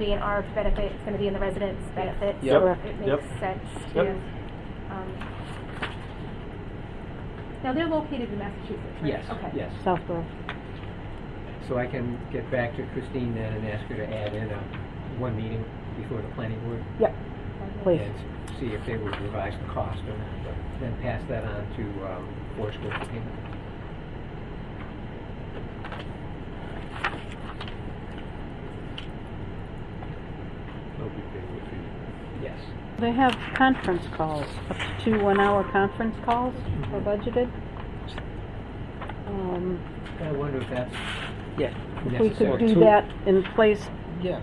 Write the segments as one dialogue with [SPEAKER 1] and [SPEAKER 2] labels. [SPEAKER 1] be in our benefit, it's gonna be in the residents' benefit.
[SPEAKER 2] Yep.
[SPEAKER 1] So
[SPEAKER 2] Correct.
[SPEAKER 1] It
[SPEAKER 2] Yep.
[SPEAKER 1] makes sense
[SPEAKER 2] Yep.
[SPEAKER 1] to, um, now they're located in Massachusetts, right?
[SPEAKER 3] Yes,
[SPEAKER 1] Okay.
[SPEAKER 3] yes.
[SPEAKER 4] Southborough.
[SPEAKER 3] So I can get back to Christine then and ask her to add in a, one meeting before the planning board.
[SPEAKER 4] Yep, please.
[SPEAKER 3] And see if they would revise the cost or not, but then pass that on to, um, Forest Grove for payment.
[SPEAKER 2] That'll be paid with the-
[SPEAKER 3] Yes.
[SPEAKER 4] They have conference calls, up to two one-hour conference calls are budgeted. Um,
[SPEAKER 3] I wonder if that's
[SPEAKER 5] Yeah,
[SPEAKER 4] If we could
[SPEAKER 3] necessary,
[SPEAKER 4] do
[SPEAKER 5] Two-
[SPEAKER 4] that in place,
[SPEAKER 5] yeah,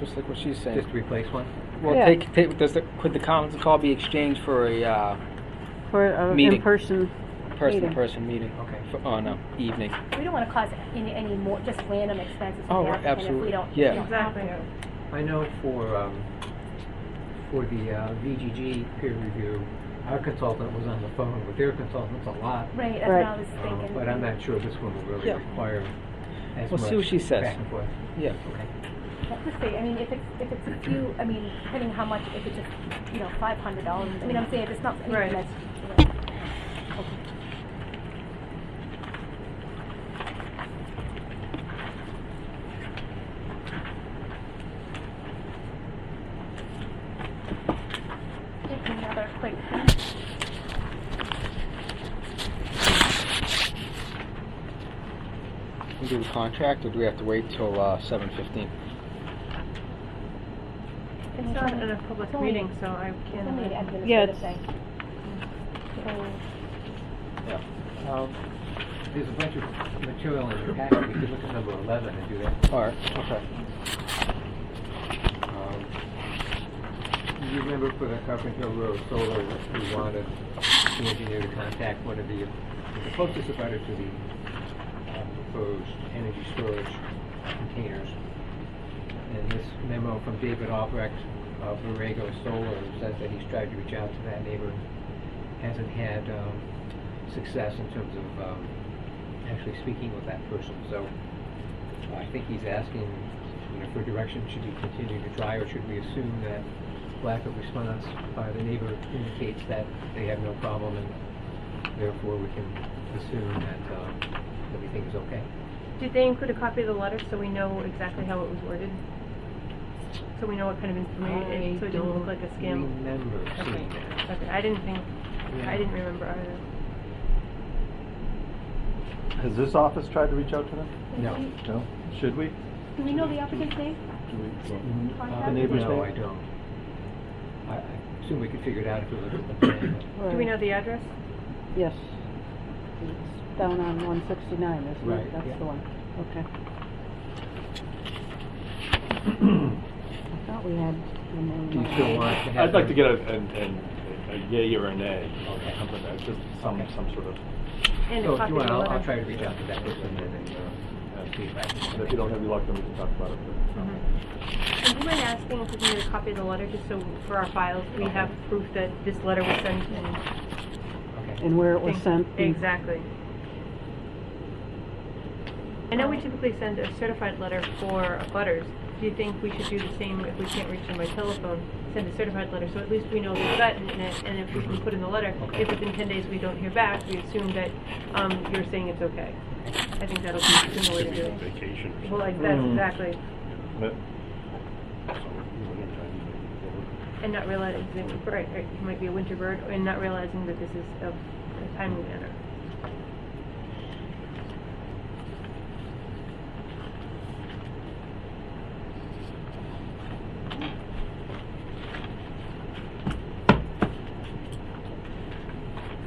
[SPEAKER 5] just like what she's saying.
[SPEAKER 3] just to replace one.
[SPEAKER 5] well,
[SPEAKER 4] yeah.
[SPEAKER 5] take, take, does the, could the conference call be exchanged for a uh,
[SPEAKER 4] for an
[SPEAKER 5] Meeting.
[SPEAKER 4] in-person,
[SPEAKER 5] person-to-person meeting?
[SPEAKER 3] Okay.
[SPEAKER 5] For, on a evening.
[SPEAKER 1] We don't wanna cause any, any more, just random expenses. for
[SPEAKER 5] Oh,
[SPEAKER 1] the applicant If
[SPEAKER 5] absolutely.
[SPEAKER 1] we don't.
[SPEAKER 5] Yeah.
[SPEAKER 1] you know,
[SPEAKER 3] I know for, um, for the uh, VGG peer review, our consultant was on the phone with their consultants a lot.
[SPEAKER 1] Right, that's what I
[SPEAKER 4] Right.
[SPEAKER 1] was
[SPEAKER 3] um,
[SPEAKER 1] thinking.
[SPEAKER 3] But I'm not sure this one will really
[SPEAKER 5] Yeah.
[SPEAKER 3] require as
[SPEAKER 5] We'll
[SPEAKER 3] much.
[SPEAKER 5] see what she says.
[SPEAKER 3] Back and forth.
[SPEAKER 5] Yeah.
[SPEAKER 3] Okay.
[SPEAKER 1] Let's see, I mean, if it's, if it's a few, I mean, depending how much, if it's just, you know, five hundred dollars, I mean, I'm saying if it's not anything
[SPEAKER 6] Right.
[SPEAKER 1] that's. Just Another quick thing.
[SPEAKER 5] Can we do the contract, or do we have to wait till uh, 7:15?
[SPEAKER 1] Can we
[SPEAKER 6] It's not
[SPEAKER 1] try-
[SPEAKER 6] in a public
[SPEAKER 1] it's only-
[SPEAKER 6] meeting, so I uh,
[SPEAKER 1] it's only an
[SPEAKER 6] can't.
[SPEAKER 4] Yeah,
[SPEAKER 1] administrative
[SPEAKER 4] it's-
[SPEAKER 1] thing. So,
[SPEAKER 3] Um, There's a bunch of material in your packet. You could look at number 11 and do that.
[SPEAKER 5] All right. Okay.
[SPEAKER 3] Um, You remember for the Carpenter Road solar, we wanted the engineer to contact one of the, the closest abutter to the uh, proposed energy storage containers. And this memo from David Albrecht of Borrego Solar says that he's tried to reach out to that neighbor, hasn't had um, success in terms of um, actually speaking with that person. So I think he's asking, you know, for direction, should he continue to try, or should we assume that lack of response by the neighbor indicates that they have no problem, and therefore we can assume that, um, everything is okay?
[SPEAKER 6] Did they include a copy of the letter so we know exactly how it was worded? So we know what kind of information, so it didn't look like a scam?
[SPEAKER 3] remember
[SPEAKER 6] Okay,
[SPEAKER 3] seeing that.
[SPEAKER 6] okay, I didn't think, I
[SPEAKER 3] Yeah.
[SPEAKER 6] didn't remember either.
[SPEAKER 2] Has this office tried to reach out to them?
[SPEAKER 1] can
[SPEAKER 3] No.
[SPEAKER 1] we-
[SPEAKER 2] No. Should we?
[SPEAKER 1] Do we know the applicant's name?
[SPEAKER 2] Do we?
[SPEAKER 3] Uh,
[SPEAKER 1] Contact?
[SPEAKER 2] neighbor's
[SPEAKER 3] No, I
[SPEAKER 2] name?
[SPEAKER 3] don't. I, I assume we could figure it out if we look at the plan, but-
[SPEAKER 6] Do we know
[SPEAKER 4] right,
[SPEAKER 6] the address?
[SPEAKER 4] yes. It's down on one sixty-nine, isn't
[SPEAKER 3] Right,
[SPEAKER 4] it? That's
[SPEAKER 3] yeah.
[SPEAKER 4] the one, okay. I thought we had the name.
[SPEAKER 3] do you
[SPEAKER 4] on
[SPEAKER 3] still
[SPEAKER 4] it.
[SPEAKER 3] want to have?
[SPEAKER 2] I'd like to
[SPEAKER 3] them-
[SPEAKER 2] get a, an, an, a yay or a nay,
[SPEAKER 3] Okay.
[SPEAKER 2] something like that, just some, some sort of,
[SPEAKER 6] And
[SPEAKER 3] So Oh,
[SPEAKER 6] a
[SPEAKER 3] if
[SPEAKER 6] copy
[SPEAKER 3] you want,
[SPEAKER 6] of the
[SPEAKER 3] I'll,
[SPEAKER 6] letter?
[SPEAKER 3] I'll try to reach out to that person and, then, uh, uh, see if I can.
[SPEAKER 2] and if you don't have your luck, then we can talk about it. but-
[SPEAKER 6] Would Mm-hmm. you mind asking if we can get a copy of the letter, just so for our files, we
[SPEAKER 3] Okay.
[SPEAKER 6] have proof that this letter was sent and...
[SPEAKER 3] Okay.
[SPEAKER 4] And where it was sent. and-
[SPEAKER 6] Exactly. I know we typically send a certified letter for butters. Do you think we should do the same if we can't reach them by telephone? Send a certified letter, so at least we know there's that in it, and if we can put in the letter, if within ten days we don't hear back, we assume that, um, you're saying it's okay. I think that'll be the sooner way
[SPEAKER 2] Could
[SPEAKER 6] to
[SPEAKER 2] be
[SPEAKER 6] do
[SPEAKER 2] on
[SPEAKER 6] it.
[SPEAKER 2] vacation or
[SPEAKER 6] Well,
[SPEAKER 2] something.
[SPEAKER 6] like, that's
[SPEAKER 2] Mm.
[SPEAKER 6] exactly,
[SPEAKER 2] But- so, you know, anytime
[SPEAKER 6] and not realizing, that- right, right, you might be a winter bird, and not realizing that this is of a timely manner.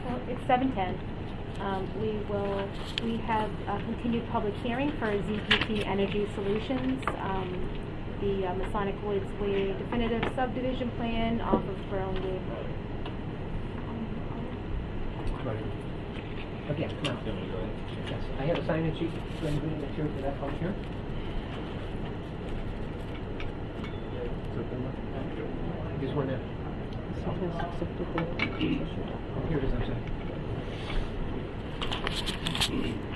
[SPEAKER 1] Well, it's seven ten. Um, we will, we have a continued public hearing for ZPT Energy Solutions, um, the uh, Masonic Woods Way definitive subdivision plan off of Berlin Gate Road.
[SPEAKER 3] Okay, come on. Yes, I have a sign-in sheet, so anybody that's here for that public hearing? Just one now.
[SPEAKER 4] So it has accepted the-
[SPEAKER 3] Oh, Here it is, I'm sorry.